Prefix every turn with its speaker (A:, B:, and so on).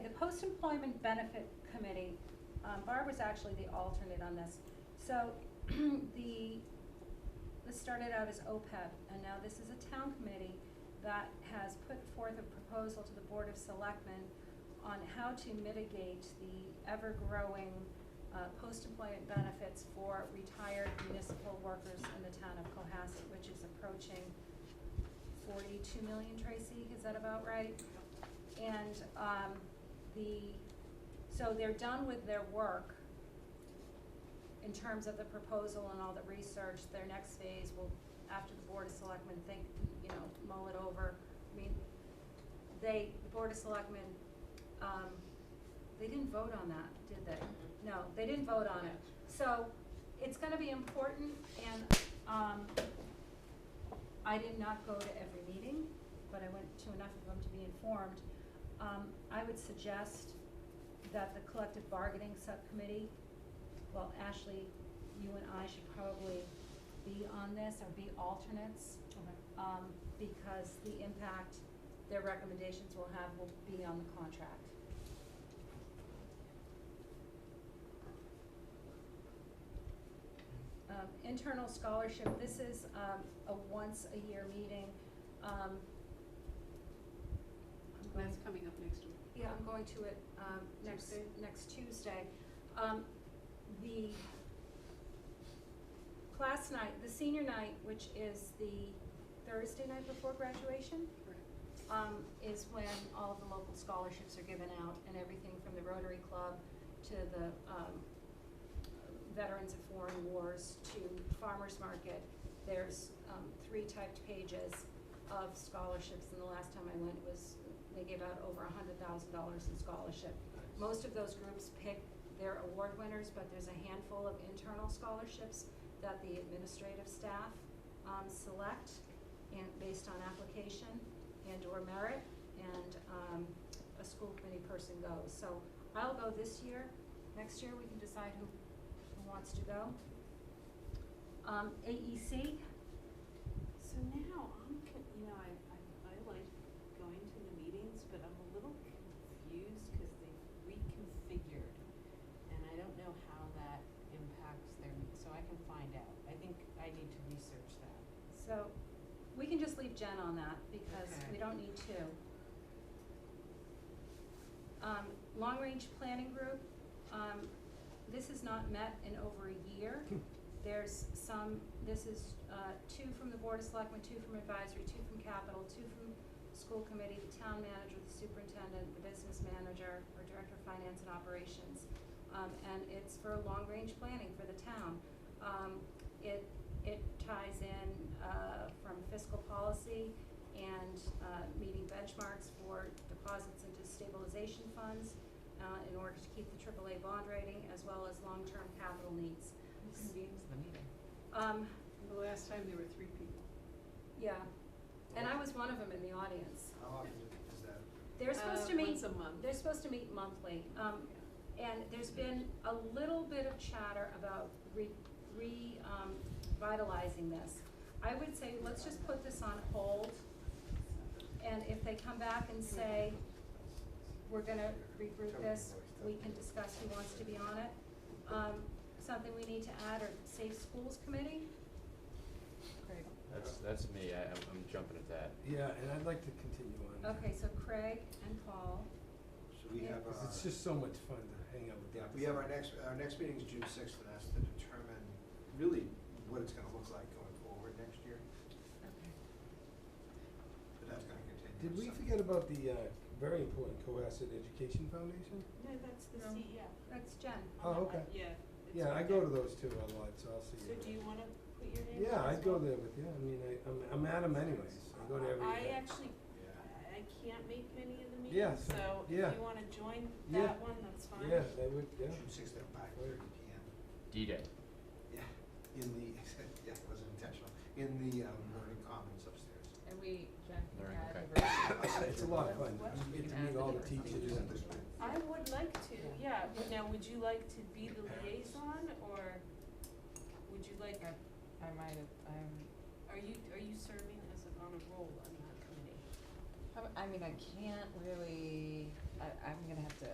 A: Post-Employment Benefit Committee, um, Barb was actually the alternate on this. So the, this started out as OPEB, and now this is a town committee that has put forth a proposal to the Board of Selectmen on how to mitigate the ever-growing uh, post-employment benefits for retired municipal workers in the town of Cohasset, which is approaching forty-two million, Tracy, is that about right? And, um, the, so they're done with their work in terms of the proposal and all the research, their next phase will, after the Board of Selectmen think, you know, mull it over. I mean, they, the Board of Selectmen, um, they didn't vote on that, did they? No, they didn't vote on it. So it's gonna be important and, um, I did not go to every meeting, but I went to enough of them to be informed. Um, I would suggest that the collective bargaining subcommittee, well, Ashley, you and I should probably be on this or be alternates. Um, because the impact their recommendations will have will be on the contract. Um, internal scholarship, this is, um, a once-a-year meeting, um. I'm going-
B: That's coming up next week.
A: yeah, I'm going to it, um, next,
B: Tuesday?
A: next Tuesday. Um, the class night, the senior night, which is the Thursday night before graduation,
B: Correct.
A: um, is when all of the local scholarships are given out and everything from the Rotary Club to the, um, Veterans of Foreign Wars to Farmers Market. There's, um, three typed pages of scholarships and the last time I went was, they gave out over a hundred thousand dollars in scholarship. Most of those groups pick their award winners, but there's a handful of internal scholarships that the administrative staff, um, select and based on application and or merit and, um, a school committee person goes. So I'll go this year. Next year, we can decide who, who wants to go. Um, AEC,
B: So now, I'm, con- you know, I, I, I like going to the meetings, but I'm a little confused because they've reconfigured. And I don't know how that impacts their, me- so I can find out. I think I need to research that.
A: so we can just leave Jen on that because
B: Okay.
A: we don't need two. Um, long range planning group, um, this has not met in over a year. There's some, this is, uh, two from the Board of Selectmen, two from advisory, two from capital, two from school committee, the town manager, the superintendent, the business manager, or director of finance and operations. Um, and it's for long-range planning for the town. Um, it, it ties in, uh, from fiscal policy and, uh, meeting benchmarks for deposits into stabilization funds, uh, in order to keep the AAA bond rating, as well as long-term capital needs.
B: Who convenes the meeting?
A: Um,
C: The last time there were three people.
A: yeah, and I was one of them in the audience.
D: How often is that?
A: They're supposed
B: Uh,
A: to meet.
B: once a month.
A: They're supposed to meet monthly, um, and there's been a little bit of chatter about re, re, um, vitalizing this. I would say, let's just put this on hold, and if they come back and say, we're gonna regroup this, we can discuss who wants to be on it. Um, something we need to add are Safe Schools Committee,
B: Craig.
E: That's, that's me, I, I'm- I'm jumping at that.
C: Yeah, and I'd like to continue on.
A: okay, so Craig and Paul,
D: So we
A: Yeah.
D: have our.
C: 'Cause it's just so much fun to hang out with.
D: Yeah,
C: them.
D: we have our next, our next meeting is June sixth, and that's to determine really what it's gonna look like going forward next year,
A: okay.
D: but that's gonna continue.
C: Did we
D: some-
C: forget about the, uh, very important Cohasset Education Foundation?
B: No, that's the E
A: No.
B: CEO.
A: That's Jen.
C: Oh, okay.
B: Yeah. it's
C: Yeah, I
B: right
C: go
B: there.
C: to those two a lot, so I'll see you.
B: So do you wanna put your name?
C: Yeah,
B: down
C: I
B: as
C: go
B: well?
C: there with you, I mean, I, I'm, I'm at 'em anyways, I go to every
B: I
C: event.
B: actually,
D: Yeah,
B: I I can't make many of the
C: Yeah,
B: meetings,
C: so-
B: so if
C: yeah.
B: you wanna join
C: Yeah.
B: that one, that's fine.
C: Yeah, I would, yeah,
D: June sixth at five thirty P M.
E: D-Day.
D: Yeah, in the, yeah, it wasn't intentional, in the, um, learning commons upstairs.
F: And we, Jen can
E: Learn,
F: add
E: okay.
F: diversity.
C: it's a lot of fun,
B: What?
C: you get to
F: And
C: meet
F: the
C: all the
F: different
D: We should
C: teachers
D: do that
C: and.
D: this way.
B: I would like to, yeah, but now, would you like to be the
C: Parents.
B: liaison, or would you like,
F: I I might have, I'm,
B: are you, are you serving as, a- on a role on that committee?
F: how- I mean, I can't really, I, I'm gonna have to